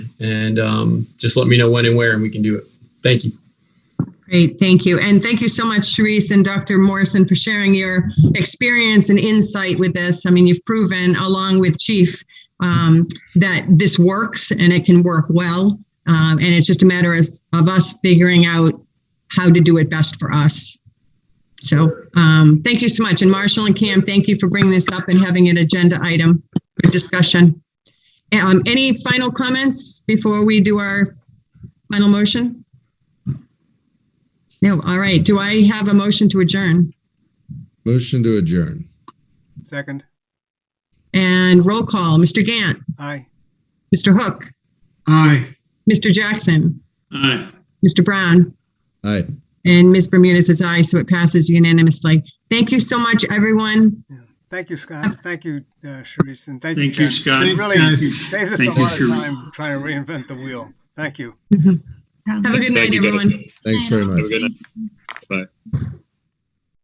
And um, just let me know when and where, and we can do it. Thank you. Great, thank you. And thank you so much, Sharice and Dr. Morrison, for sharing your experience and insight with this. I mean, you've proven, along with Chief, um, that this works and it can work well. Um, and it's just a matter as- of us figuring out how to do it best for us. So um, thank you so much. And Marshall and Cam, thank you for bringing this up and having an agenda item. Good discussion. Um, any final comments before we do our final motion? No, all right. Do I have a motion to adjourn? Motion to adjourn. Second. And roll call, Mr. Gant, Aye. Mr. Hook, Aye. Mr. Jackson, Aye. Mr. Brown, Aye. and Ms. Bermudez is aye, so it passes unanimously. Thank you so much, everyone. Thank you, Scott. Thank you, uh, Sharice, and thank you. Thank you, Ken. Scott. It Really Thanks, guys. saves us a Thank you, lot of Sharice. time trying to reinvent the wheel. Thank you. Have a good night, everyone. Thanks very much.